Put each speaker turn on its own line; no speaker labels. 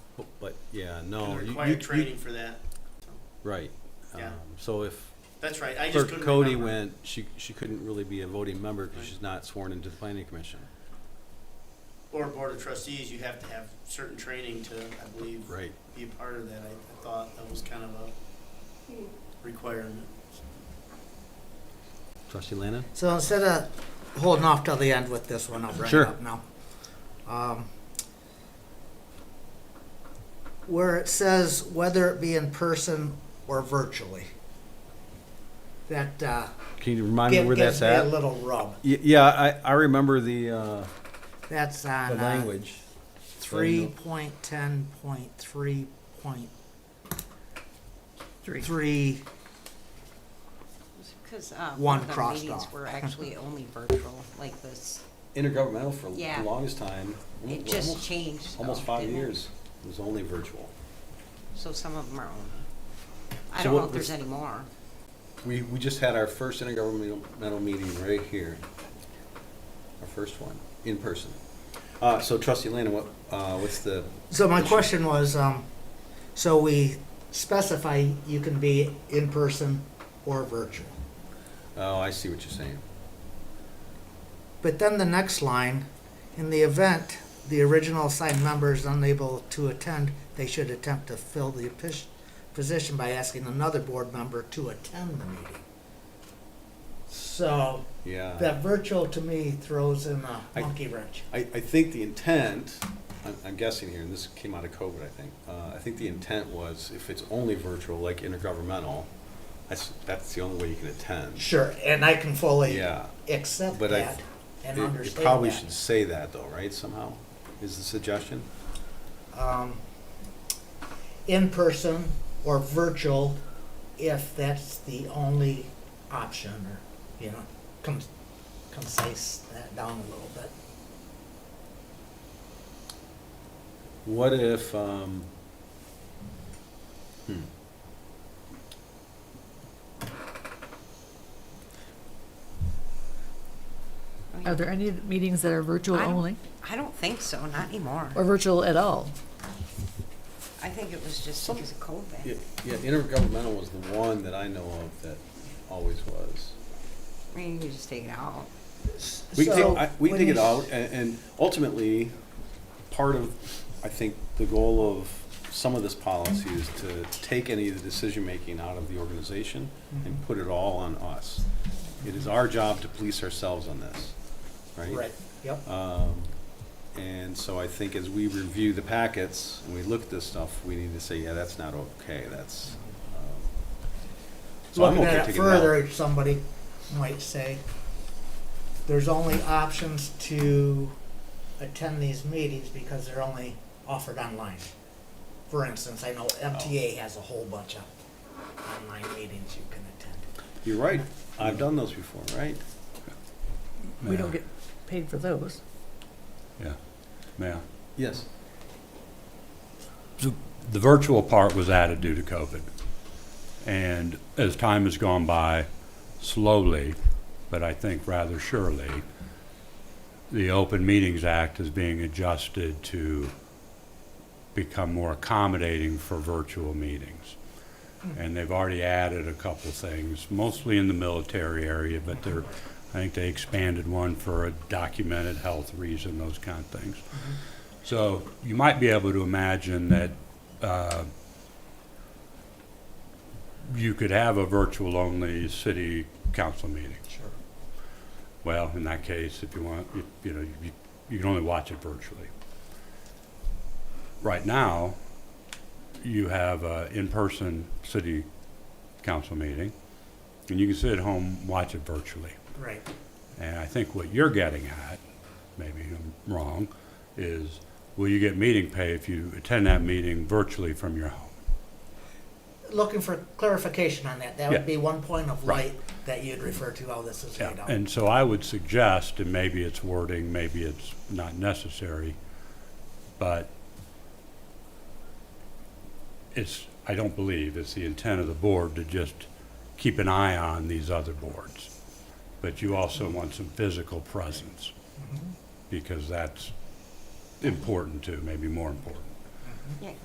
Yeah, no. Oh, you- you-
require
you-
training for that.
Right.
Yeah.
Um, So if
That's right, I just
Clerk
couldn't
Cody
remember.
went, she, she couldn't really be a voting member because
Right.
she's not sworn into the planning commission.
Or Board of Trustees, you have to have certain training to, I believe,
Right.
be a part of that. I, I thought that was kind of a requirement.
Trustee Lana?
So instead of holding off till the end with this one, I'll bring
Sure.
it up now. Um, where it says whether it be in person or virtually, that uh,
Can you remind me
give-
where
gives
that's
me a
at?
little rub.
Y- Yeah, I, I remember the, uh,
That's
the
Uh-huh.
on uh,
language.
three point ten point three point
Three.
three.
Because uh,
One
one of the
crossed
meetings
off.
were actually only virtual, like this.
Intergovernmental for the
Yeah.
longest time.
It
almost-
just changed. though,
Almost five
didn't it?
years. It was only virtual.
So some of them are only. I
So
don't
what
know if
was-
there's any more.
We, we just had our first intergovernmental meeting right here. Our first one, in person. Uh, so trustee Lana, what, uh, what's the,
So my question was, um, so we specify you can be in person or virtual.
oh, I see what you're saying.
But then the next line, in the event the original assigned member is unable to attend, they should attempt to fill the pos- position by asking another board member to attend the meeting. So
Yeah.
that virtual to me throws in a
I-
monkey wrench.
I, I think the intent, I'm, I'm guessing here, and this came out of COVID, I think. Uh, I think the intent was if it's only virtual, like intergovernmental, that's, that's the only way you can attend.
Sure, and I can fully
Yeah.
accept
But I-
that and
You-
understand
You probably
that.
should say that though, right, somehow, is the suggestion?
um, in person or virtual if that's the only option or, you know, con- concise that down a little bit.
What if, um, hmm.
I
Are
mean,
there any meetings that are virtual
I don't-
only
I don't think so, not anymore.
or virtual at all?
I think it was just because of
Yeah,
COVID.
yeah, intergovernmental was the one that I know of that always was.
I mean, you just take it out.
We can
So,
take, I- we can
when
take it
you-
out, and, and ultimately, part of, I think, the goal of some of this policy is to take any of the decision-making out of the organization
Mm-hmm.
and put it all on us. It is our job to police ourselves on this, right?
Right, yep.
Um, And so I think as we review the packets, and we look at this stuff, we need to say, yeah, that's not okay, that's. um, so I'm
Looking
okay
at it
taking out.
further, somebody might say, there's only options to attend these meetings because they're only offered online. For instance, I know MTA has a whole bunch of online meetings you can attend.
You're right, I've done those before, right?
We don't get paid for those.
Yeah.
Yes.
The virtual part was added due to COVID. And as time has gone by, slowly, but I think rather surely, the Open Meetings Act is being adjusted to become more accommodating for virtual meetings. And they've already added a couple things, mostly in the military area, but they're, I think they expanded one for a documented health reason, those kind of things. So you might be able to imagine that uh, you could have a virtual-only city council meeting.
Sure.
Well, in that case, if you want, you- you know, you- you can only watch it virtually. Right now, you have an in-person city council meeting, and you can sit at home, watch it virtually.
Right.
And I think what you're getting at, maybe I'm wrong, is will you get meeting pay if you attend that meeting virtually from your home?
Looking for clarification on that. That
Yeah.
would be one point of
Right.
light that you'd refer to how this is
Yeah,
laid out.
and so I would suggest, and maybe it's wording, maybe it's not necessary, but it's, I don't believe it's the intent of the board to just keep an eye on these other boards. But you also want some physical presence, because that's important too, maybe more important.
Yeah,